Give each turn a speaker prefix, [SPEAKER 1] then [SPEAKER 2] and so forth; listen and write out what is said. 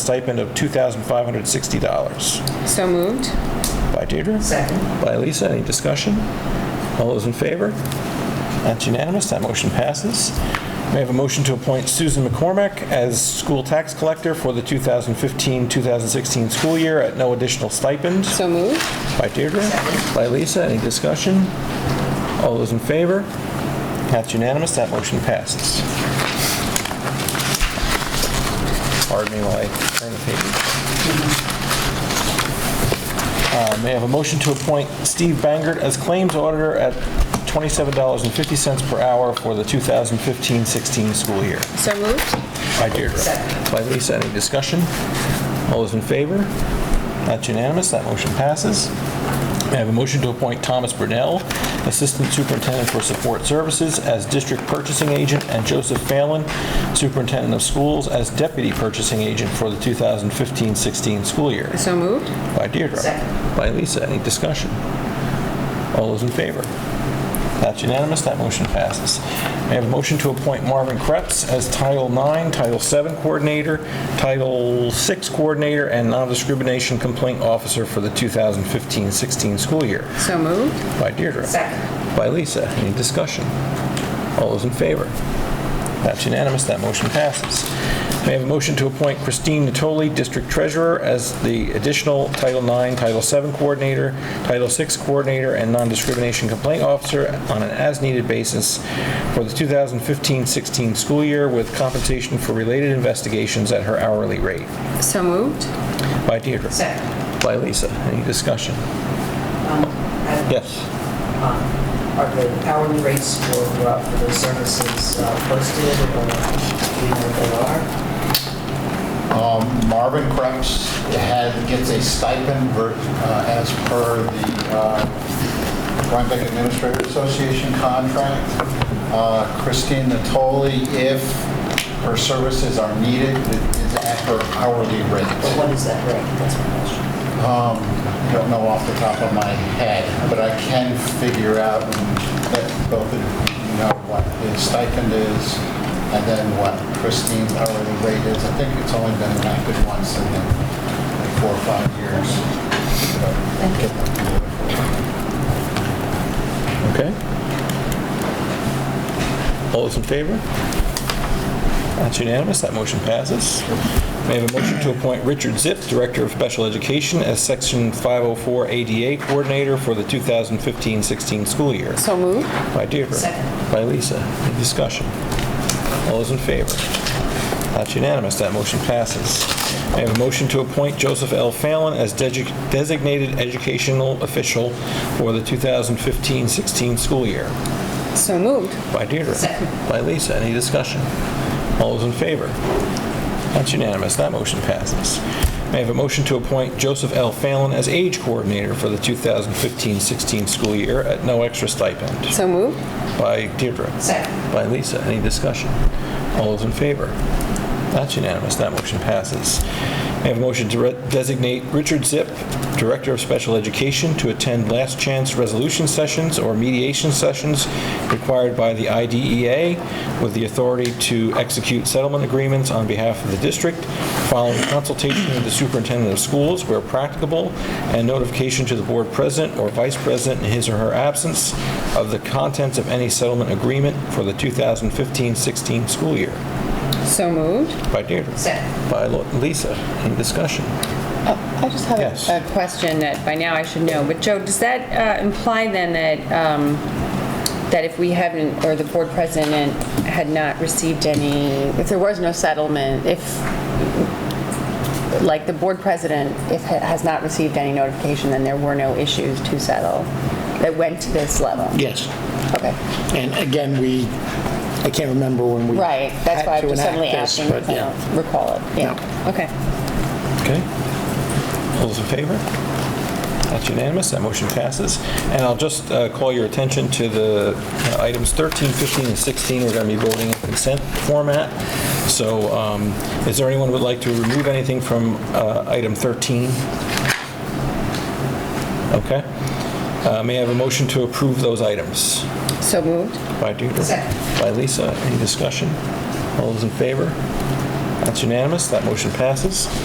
[SPEAKER 1] stipend of $2,560.
[SPEAKER 2] So moved.
[SPEAKER 1] By Deirdre?
[SPEAKER 3] Second.
[SPEAKER 1] By Lisa, any discussion? All those in favor? That's unanimous, that motion passes. May I have a motion to appoint Susan McCormick as school tax collector for the 2015-2016 school year at no additional stipend?
[SPEAKER 2] So moved.
[SPEAKER 1] By Deirdre? By Lisa, any discussion? All those in favor? That's unanimous, that motion passes. Pardon me while I turn the page. Uh, May I have a motion to appoint Steve Bangert as claims auditor at $27.50 per hour for the 2015-16 school year?
[SPEAKER 2] So moved.
[SPEAKER 1] By Deirdre. By Lisa, any discussion? All those in favor? That's unanimous, that motion passes. I have a motion to appoint Thomas Brunel, Assistant Superintendent for Support Services, as District Purchasing Agent, and Joseph Phelan, Superintendent of Schools, as Deputy Purchasing Agent for the 2015-16 school year.
[SPEAKER 2] So moved.
[SPEAKER 1] By Deirdre.
[SPEAKER 3] Second.
[SPEAKER 1] By Lisa, any discussion? All those in favor? That's unanimous, that motion passes. May I have a motion to appoint Marvin Kretz as Title IX, Title VII Coordinator, Title VI Coordinator, and Non-Discrimination Complaint Officer for the 2015-16 school year?
[SPEAKER 2] So moved.
[SPEAKER 1] By Deirdre.
[SPEAKER 3] Second.
[SPEAKER 1] By Lisa. Any discussion? All those in favor? That's unanimous. That motion passes. May I have a motion to appoint Christine Natoli, District Treasurer, as the additional Title IX, Title VII Coordinator, Title VI Coordinator, and Non-Discrimination Complaint Officer on an as-needed basis for the 2015-16 school year with compensation for related investigations at her hourly rate?
[SPEAKER 2] So moved.
[SPEAKER 1] By Deirdre.
[SPEAKER 3] Second.
[SPEAKER 1] By Lisa. Any discussion? Yes.
[SPEAKER 3] Are the hourly rates for, uh, for those services uh, posted or, do you know, what they are?
[SPEAKER 4] Marvin Krebs had, gets a stipend ver- uh, as per the uh, Rhinebeck Administrative Association contract. Uh, Christine Natoli, if her services are needed, is at her hourly
[SPEAKER 3] But
[SPEAKER 4] rate.
[SPEAKER 3] what is that rate? That's my question.
[SPEAKER 4] I Don't know off the top of my head, but I can figure out, and let both of you know, what his stipend is, and then what Christine's hourly rate is. I think it's only been enacted once in like four or five years.
[SPEAKER 1] Okay. All those in favor? That's unanimous, that motion passes. May I have a motion to appoint Richard Zip, Director of Special Education, as Section 504 ADA Coordinator for the 2015-16 school year?
[SPEAKER 2] So moved.
[SPEAKER 1] By Deirdre.
[SPEAKER 3] Second.
[SPEAKER 1] By Lisa. Any discussion? All those in favor? That's unanimous. That motion passes. May I have a motion to appoint Joseph L. Fallon as desi- designated educational official for the 2015-16 school year?
[SPEAKER 2] So moved.
[SPEAKER 1] By Deirdre.
[SPEAKER 3] Second.
[SPEAKER 1] By Lisa. Any discussion? All those in favor? That's unanimous. That motion passes. May I have a motion to appoint Joseph L. Fallon as age coordinator for the 2015-16 school year at no extra stipend?
[SPEAKER 2] So moved.
[SPEAKER 1] By Deirdre.
[SPEAKER 3] Second.
[SPEAKER 1] By Lisa. Any discussion? All those in favor? That's unanimous. That motion passes. May I have a motion to re- designate Richard Zip, Director of Special Education, to attend last chance resolution sessions or mediation sessions required by the IDEA with the authority to execute settlement agreements on behalf of the district following consultation with the superintendent of schools where practicable and notification to the board president or vice president in his or her absence of the contents of any settlement agreement for the 2015-16 school year.
[SPEAKER 2] So moved.
[SPEAKER 1] By Deirdre.
[SPEAKER 3] Second.
[SPEAKER 1] By Lo- Lisa. Any discussion?
[SPEAKER 2] I just have
[SPEAKER 1] Yes.
[SPEAKER 2] a- a question that by now I should know, but Joe, does that uh, imply then that, um, that if we haven't, or the board president had not received any, if there was no settlement, if, like, the board president, if ha- has not received any notification, then there were no issues to settle that went to this level?
[SPEAKER 5] Yes.
[SPEAKER 2] Okay,
[SPEAKER 5] And again, we, I can't remember when we.
[SPEAKER 2] right, that's why
[SPEAKER 5] had
[SPEAKER 2] I'm
[SPEAKER 5] to
[SPEAKER 2] just
[SPEAKER 5] enact
[SPEAKER 2] suddenly
[SPEAKER 5] this,
[SPEAKER 2] asking,
[SPEAKER 5] but
[SPEAKER 2] because I
[SPEAKER 5] yeah.
[SPEAKER 2] don't recall it, yeah, okay.
[SPEAKER 1] Okay. All those in favor? That's unanimous, that motion passes. And I'll just uh, call your attention to the uh, items 13, 15, and 16, we're going to be voting in consent format. So um, is there anyone who would like to remove anything from uh, item 13? Okay. Uh, May I have a motion to approve those items?
[SPEAKER 2] So moved.
[SPEAKER 1] By Deirdre.
[SPEAKER 3] Second.
[SPEAKER 1] By Lisa. Any discussion? All those in favor? That's unanimous. That motion passes.